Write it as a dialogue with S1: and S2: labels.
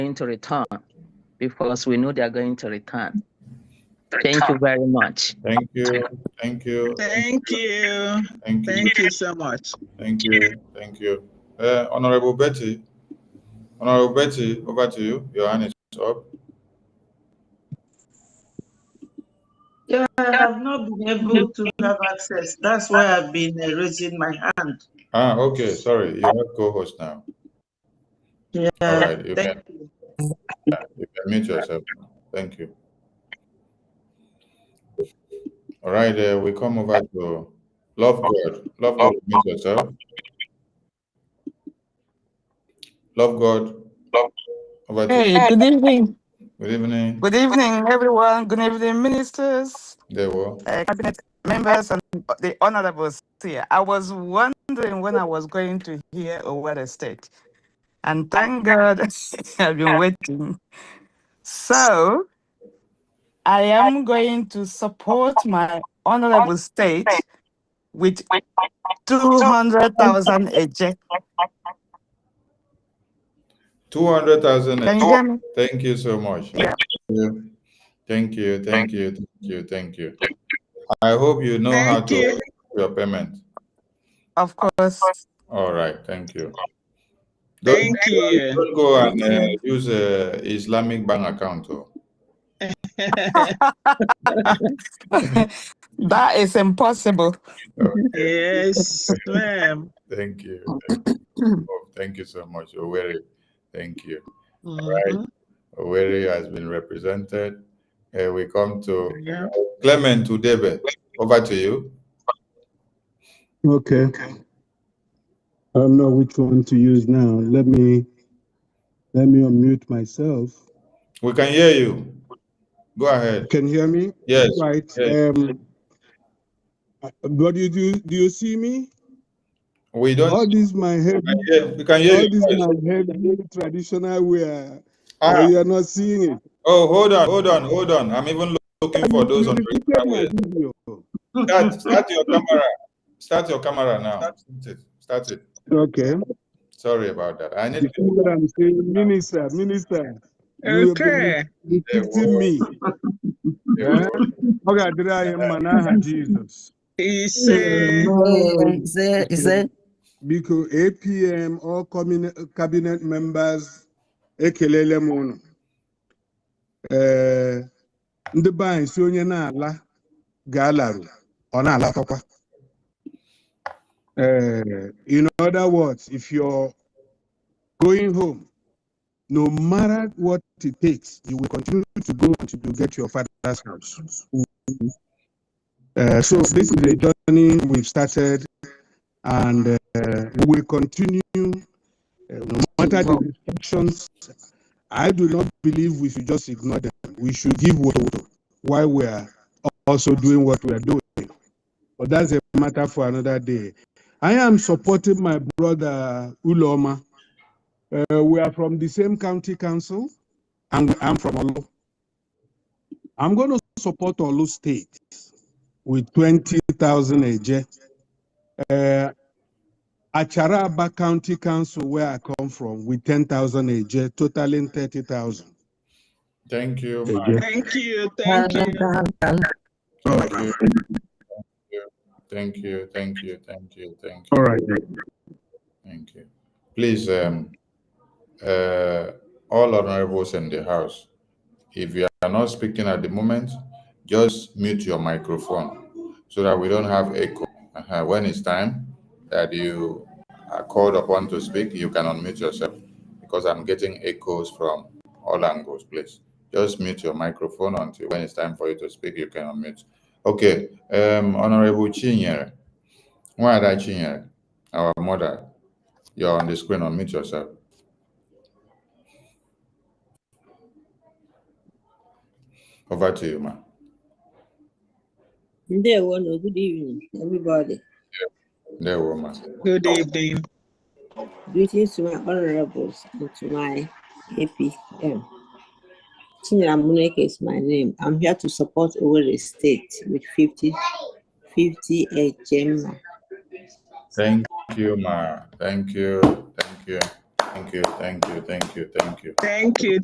S1: going to return because we know they are going to return. Thank you very much.
S2: Thank you, thank you,
S3: Thank you.
S2: thank you,
S3: Thank you so much.
S2: thank you, thank you. Uh, Honorable Betty, Honorable Betty, over to you. Your hand is up.
S3: Yeah, I have not been able to have access. That's why I've been uh, raising my hand.
S2: Ah, okay, sorry, you have co-host now.
S3: Yeah,
S4: Uh,
S2: All right, you can,
S3: thank you.
S2: you can mute yourself. now. Thank you. All right, uh, we come over to Love God. Love God, mute yourself. Love God. Love. Over to you.
S4: Hey, good evening.
S2: Good evening,
S4: Good evening, everyone. Good evening, ministers,
S2: Dewo.
S4: uh, cabinet members, and the honorables here. I was wondering when I was going to hear a word estate, and thank God I've been waiting. So I am going to support my honorable state with 200,000 eject.
S2: Two hundred thousand.
S4: Can you hear me?
S2: Thank you so much.
S4: Yeah.
S2: Thank you, thank you, thank you, thank you. I hope you know how
S3: Thank
S2: to
S3: you.
S2: your payment.
S4: Of course.
S2: All right, thank you. Don't-
S3: Thank you.
S2: Don't go and uh,
S4: Thank
S2: use uh, Islamic bank account. oh.
S4: that is impossible.
S3: Yes, ma'am.
S2: Thank you. Thank you. Oh, Thank you so much, Oweri. Thank you.
S3: Mhm.
S2: Oweri has been represented. Uh, We come to
S3: Yeah.
S2: Clement Udebe. Over to you.
S5: Okay. I don't know which one to use now. Let me, let me unmute myself.
S2: We can hear you. Go ahead.
S5: Can you hear me?
S2: Yes.
S5: Right,
S2: yes.
S5: um, uh, what do you do? Do you see me?
S2: We don't.
S5: All this my head,
S2: I hear- We can hear
S5: all this
S2: you. guys.
S5: my head traditional wear,
S2: Ah,
S5: but you are not seeing it.
S2: oh, hold on, hold on, hold on. I'm even looking for those
S5: You
S2: on
S5: repeated my
S2: the
S5: video.
S2: Start, start your camera. Start your camera now. Start it. Start it.
S5: Okay.
S2: Sorry about that. I need
S5: You see what I'm saying? Minister, minister, you have been
S3: Okay.
S5: repeating me. Yeah. Okay, did I am Manaha Jesus?
S3: He said,
S6: Is is it?
S5: biko apm all communi- cabinet members ekelele m ụnụ ee ndị be anyị si onye na-ala ga-alarụ ọ na-alakọkwa ee Eh, in other words if you're going home no matter what it takes you will continue to go until you get your father's house Eh, so this is a journey we've started and eh, we will continue Uh, no matter the restrictions, I do not believe we should just ignore them. We should give what while we are also doing what we are doing. But that's a matter for another day. I am supporting my brother Uloma. Uh, we are from the same county council, and I'm from Olu. I'm going to support Olu State with 20,000 AJ. Uh, Acharaba County Council, where I come from, with ten thousand a year, totaling thirty thousand.
S2: Thank you,
S5: Thank
S2: man.
S5: you.
S3: thank you, thank you.
S2: Thank you. Thank you. Thank you. Thank you. Thank you.
S5: All right.
S2: Thank you. Please, um, uh, all honorables in the house, if you are not speaking at the moment, just mute your microphone so that we don't have echo. Uh-huh. When it's time that you are called upon to speak, you can unmute yourself because I'm getting echoes from all angles, please. Just mute your microphone until when it's time for you to speak, you can unmute. Okay, um, Honorable Chinyere, Nwada Chinyere, our mother, you're on the screen, unmute yourself. Over to you, ma.
S6: Ndewo no, good evening, everybody.
S2: There, woman.
S3: Good evening.
S6: Greetings to my honorables and to my APM. Chinyere Amuneke is my name. I'm here to support Owerri State with 50, 50 HMA.
S2: Thank you, Ma. Thank you. Thank you. Thank you, thank you, thank you, thank you.
S3: Thank you.